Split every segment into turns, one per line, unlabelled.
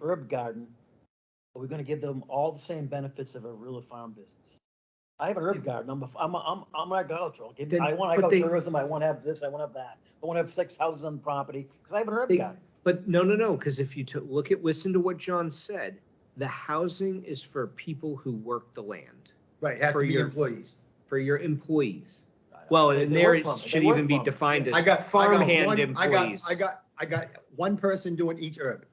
herb garden, are we gonna give them all the same benefits of a real farm business? I have an herb garden, I'm, a f- I'm, a- I'm, I'm agricultural, Give me- I
Then-
want
but they-
agritourism, I wanna have this, I wanna have that, I wanna have six houses on property, cause I have an herb
They-
garden.
But no, no, no, because if you took, look at, listen to what John said, the housing is for people who work the land,
Right, it has
For
to be
your-
employees.
for your employees. Well,
They-
and
they
there
work
it
from it, they
should
work
even be
from it.
defined
I
as
got, I got
Farmhand
one, I got,
employees.
I got, I got one person doing each herb.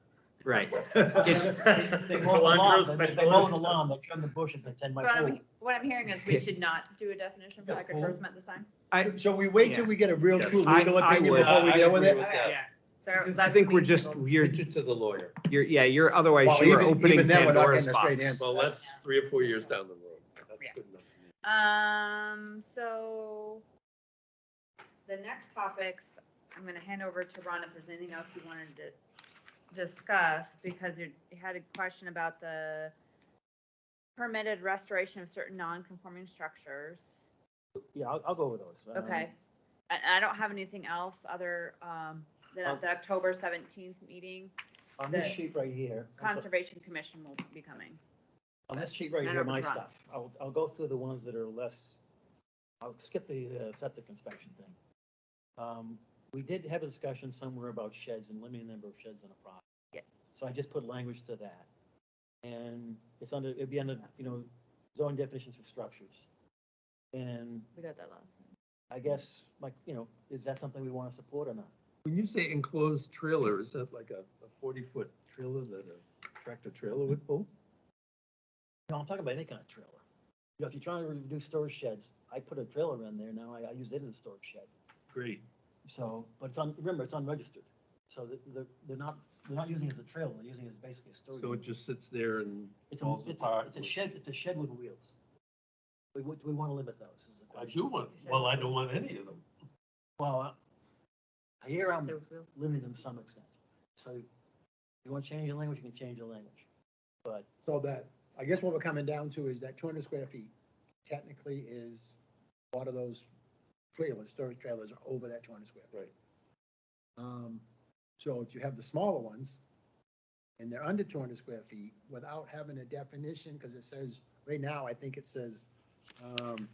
right.
They mow the lawn, they- they mow the lawn, they trim the bushes, they tend my
So what
pool.
I'm, what I'm hearing is we should not do a definition for
Yeah, cool.
agritourism at this time.
Shall we wait till
Yeah.
we get a real true
I-
legal
I
opinion
would.
before we
I
deal with
agree
it?
with that.
Yeah,
So
Because
I
that's
think we're just,
reasonable.
you're,
Pitch it to the lawyer.
you're, yeah, you're, otherwise
Well,
you are
even-
opening
even then, we're not
Pandora's
getting a straight
box.
answer.
Well, that's three or four years down the road. That's good enough. for me.
Um, so the next topics, I'm gonna hand over to Ron if there's anything else you wanted to discuss, because you you had a question about the permitted restoration of certain non-conforming structures.
Yeah, I'll, I'll go with those. Um,
Okay. And I don't have anything else other, um, than at the October seventeenth meeting,
On this
The-
sheet right here. I'm so-
Conservation Commission will be coming.
On this sheet right
And
here,
over
my
front.
stuff, I'll, I'll go through the ones that are less, I'll skip the uh, septic inspection thing. Um, we did have a discussion somewhere about sheds and limiting the number of sheds on a property,
Yes.
so I just put language to that. And it's under, it'd be under, you know, zone definitions for structures. And
We got that last.
I guess, like, you know, is that something we want to support or not?
When you say enclosed trailer, is that like a forty-foot trailer that a tractor trailer would pull?
No, I'm talking about any kind of trailer. You know, if you're trying to reduce storage sheds, I put a trailer in there, now I, I use it as a storage shed.
Great.
So, but it's on, remember, it's unregistered. So the- the, they're not, they're not using it as a trailer, they're using it as basically a storage.
So it
unit.
just sits there and
It's a,
falls
it's a,
apart.
it's a shed, it's a shed with wheels. We, we, we want to limit those. is the
I
question.
do want, well, I don't want any of them.
Well, I hear I'm
There was-
limiting them to some extent. So you want to change your language, you can change your language. But
So that, I guess what we're coming down to is that two hundred square feet technically is, a lot of those trailers, storage trailers are over that two hundred square. feet.
Right.
Um, so if you have the smaller ones, and they're under two hundred square feet, without having a definition, because it says, right now, I think it says, um,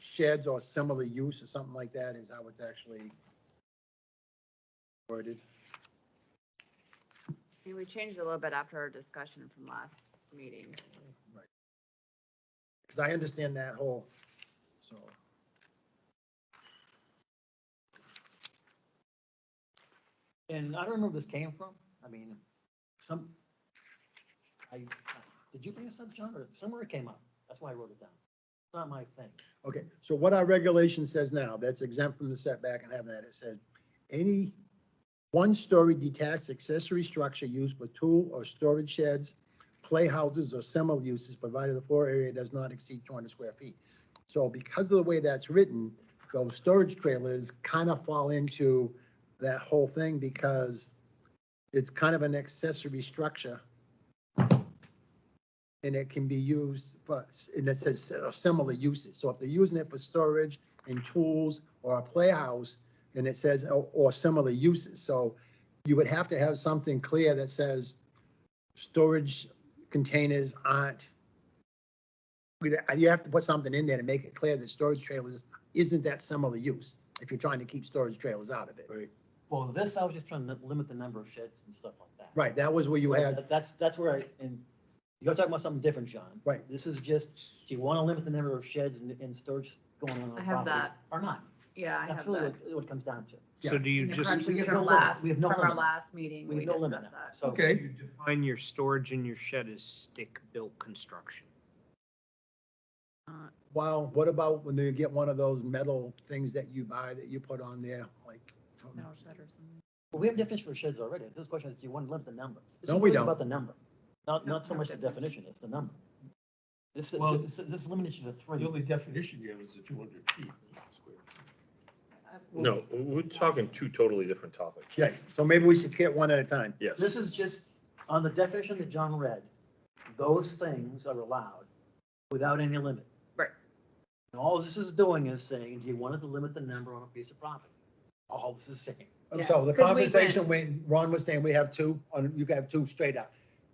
sheds or similar use or something like that is how it's actually worded.
Yeah, we changed a little bit after our discussion from last meeting.
Because I understand that whole, so.
And I don't know where this came from. I mean, some, I, did you bring this up, John, or somewhere it came up? That's why I wrote it down. It's not my thing.
Okay, so what our regulation says now, that's exempt from the setback and having that, it says, any one-story detached accessory structure used for tool or storage sheds, playhouses or similar uses, provided the floor area does not exceed two hundred square feet. So because of the way that's written, those storage trailers kind of fall into that whole thing because it's kind of an accessory structure. And it can be used for, and it says uh, similar uses. So if they're using it for storage and tools or a playhouse, and it says, or, or similar uses. So you would have to have something clear that says storage containers aren't. We'd- You have to put something in there to make it clear that storage trailers isn't that similar use, if you're trying to keep storage trailers out of it.
Well, this, I was just trying to limit the number of sheds and stuff like that.
Right, that was where you had,
That- That's, that's where I, and you're talking about something different, John.
Right.
This is just, do you want to limit the number of sheds and, and storage going on on
I
the
have
property?
that.
Or not?
Yeah, I have
That's really
that.
what, what it comes down to.
So do you
In the
just
We
corrections
have
From
no limit.
last,
We have
from
no
our
limit.
last meeting,
We
we
have no
discussed
limit now.
that.
So,
Okay.
you define your storage and your shed as stick-built construction?
wow, what about when they get one of those metal things that you buy that you put on there, like? from-
No shed or something.
we have definitions for sheds already. This question is, do you want to limit the number? This
No,
is
we
really
don't.
About the number, not,
No,
not so
no
much the definition,
definition.
it's the number. This,
Well-
this, this limitation to
The
three.
only definition you have is the two hundred feet. square.
No, we're talking two totally different topics.
Yeah, so maybe we should get one at a time.
Yes.
This is just, on the definition that John read, those things are allowed without any limit.
Right.
And all this is doing is saying, do you want to limit the number on a piece of property? All this is saying.
So the
Yeah, 'cause we went-
conversation when Ron was saying we have two, on you can have two straight up.